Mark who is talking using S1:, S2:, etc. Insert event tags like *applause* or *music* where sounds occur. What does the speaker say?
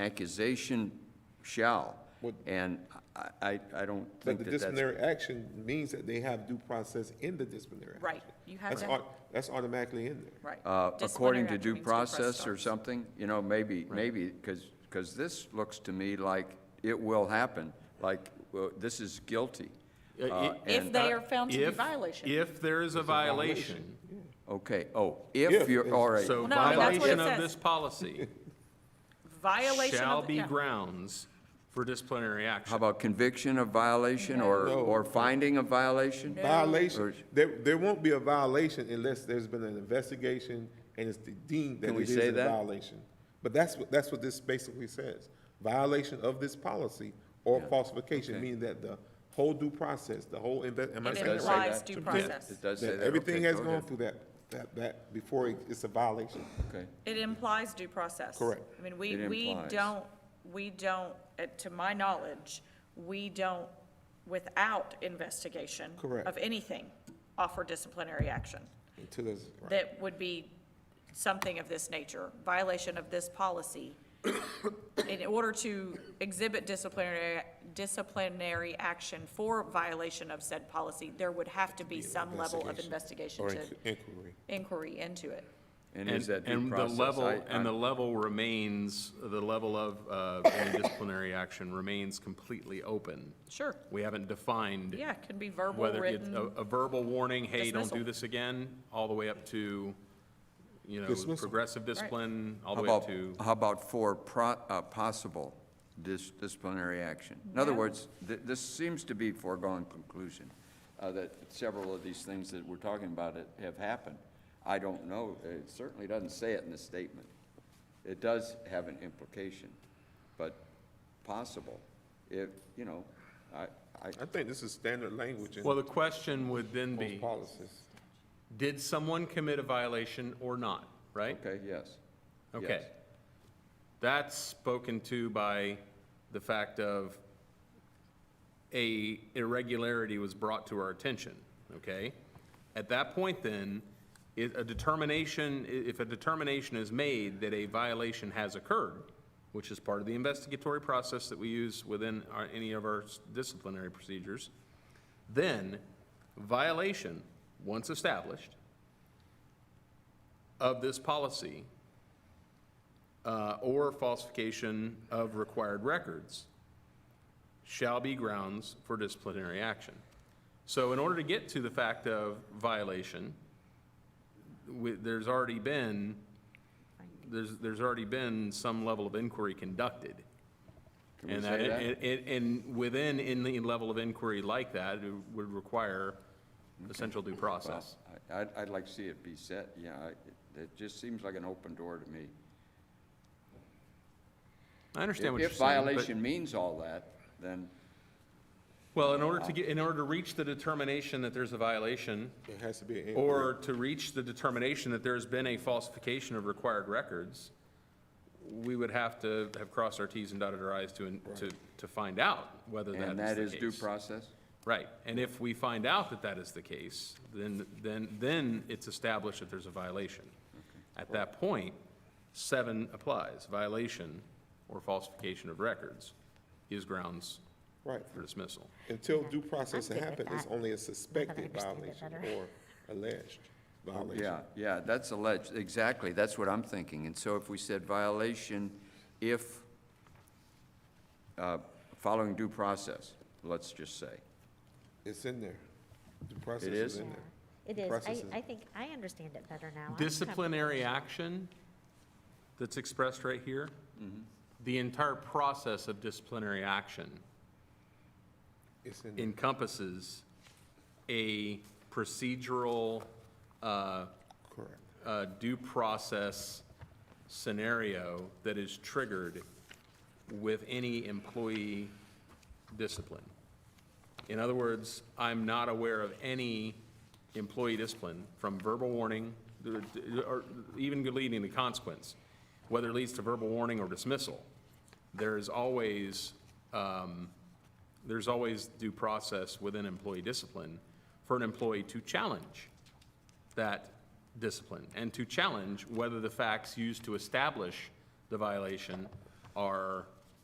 S1: accusation shall.
S2: What-
S1: And I, I, I don't
S2: But
S1: think
S2: the
S1: that that's.
S2: disciplinary action means that they have due process in the disciplinary action.
S3: Right. You have
S2: That's
S3: to-
S2: au- That's automatically in there.
S3: Right.
S1: uh,
S3: Disciplinary
S1: according to
S3: action
S1: due
S3: means
S1: process or
S3: stops.
S1: something, you know, maybe, maybe, because, because this looks to me like it will happen, like, well, this is guilty.
S4: Uh,
S1: Uh,
S4: i-
S3: If
S1: and-
S3: they are found to be
S4: If-
S3: violation.
S4: If there is a violation,
S1: Okay, oh,
S2: If
S1: if you're,
S2: is-
S1: all right,
S4: so
S3: No, that's what it
S4: violation of
S3: says.
S4: this policy
S3: *laughs* Violation of.
S4: shall be
S3: yeah.
S4: grounds for disciplinary
S1: how
S4: action.
S1: about conviction of violation or,
S2: No.
S1: or finding of violation? Or-
S2: Violation, there, there won't be a violation unless there's been an investigation and it's deemed that
S1: Can
S2: it
S1: we
S2: is
S1: say
S2: a
S1: that?
S2: violation. But that's what, that's what this basically says. Violation of this policy or falsification,
S1: okay.
S2: meaning that the whole due process, the whole inve- am I
S3: It
S2: saying that
S1: Does say
S2: right?
S3: implies
S1: that.
S3: due
S1: Yeah,
S3: process.
S1: It does say
S2: That
S1: that.
S2: everything
S1: Okay,
S2: has
S1: go
S2: gone
S1: ahead.
S2: through that, that, that, before it- it's a violation.
S1: Okay.
S3: It implies due process.
S2: Correct.
S3: I mean, we,
S1: It
S3: we
S1: implies.
S3: don't, we don't, uh, to my knowledge, we don't, without investigation.
S2: Correct.
S3: Of anything, offer disciplinary action.
S2: Until it's, right.
S3: That would be something of this nature, violation of this policy. In order to exhibit disciplinary, disciplinary action for violation of said policy, there would have to be some level of investigation
S2: or
S3: to
S2: inqu- inquiry.
S3: inquiry into it.
S1: And
S4: And
S1: is that due
S4: and the
S1: process?
S4: level-
S1: I-
S4: And the
S1: I-
S4: level remains, the level of uh, any disciplinary action remains completely open.
S3: Sure.
S4: We haven't defined.
S3: Yeah, it can be verbal,
S4: Whether it's a
S3: written.
S4: a verbal warning, hey, don't do
S3: dismissal.
S4: this again, all the way up to, you know,
S2: Dismissal.
S4: progressive discipline, all
S1: How
S4: the way up
S1: about,
S4: to.
S1: how about for pro, uh, possible dis- disciplinary action? In other
S3: Yeah.
S1: words, th- this seems to be foregone conclusion, uh, that several of these things that we're talking about it- have happened. I don't know, it certainly doesn't say it in the statement. It does have an implication, but possible, if, you know, I, I,
S2: I think this is standard language in
S4: Well, the question would then
S2: most
S4: be,
S2: policies.
S4: did someone commit a violation or not, right?
S1: okay, yes.
S4: Okay.
S1: yes.
S4: That's spoken to by the fact of a irregularity was brought to our attention, okay? At that point then, i a determination, i- if a determination is made that a violation has occurred, which is part of the investigatory process that we use within our, any of our s- disciplinary procedures, then violation, once established, of this policy uh, or falsification of required records shall be grounds for disciplinary action. So in order to get to the fact of violation, we- there's already been, there's, there's already been some level of inquiry conducted.
S1: Can we
S4: And
S1: say that?
S4: And, and- and within, in the level of inquiry like that, it would require essential due
S1: Well,
S4: process.
S1: I- I'd, I'd like to see it be set, yeah, I- it- it just seems like an open door to me.
S4: I understand what you're
S1: If
S4: saying. but-
S1: violation means all that, then,
S4: Well, in order to get, in order to reach the determination that there's a violation,
S2: It has to be an inquiry.
S4: or to reach the determination that there's been a falsification of required records, we would have to have crossed our Ts and dotted our Is to, to, to find out whether
S1: and that
S4: that is
S1: is
S4: the
S1: due
S4: case.
S1: process?
S4: Right, and if we find out that that is the case, then, then, then it's established that there's a violation. At that point, seven applies, violation or falsification of records is grounds
S2: Right.
S4: for dismissal.
S2: Until due process
S5: I'm good
S2: happened,
S5: with
S2: it's
S5: that.
S2: only a
S5: I
S2: suspected
S5: understand it
S2: violation
S5: better.
S2: or alleged violation.
S1: Yeah, yeah, that's alleged, exactly, that's what I'm thinking, and so if we said violation if, uh, following due process, let's just say.
S2: It's in there. Due process
S1: is?
S2: is in
S5: Yeah.
S2: there.
S5: It
S2: The
S5: is.
S2: process is-
S5: I, I think, I understand it better now. I'm kinda-
S4: disciplinary action that's expressed right here, the entire process of disciplinary action
S2: It's in there.
S4: encompasses a procedural uh,
S2: Correct.
S4: uh, due process scenario that is triggered with any employee discipline. In other words, I'm not aware of any employee discipline from verbal warning, or even leading to consequence, whether it leads to verbal warning or dismissal. There is always, um, there's always due process within employee discipline for an employee to challenge that discipline and to challenge whether the facts used to establish the violation are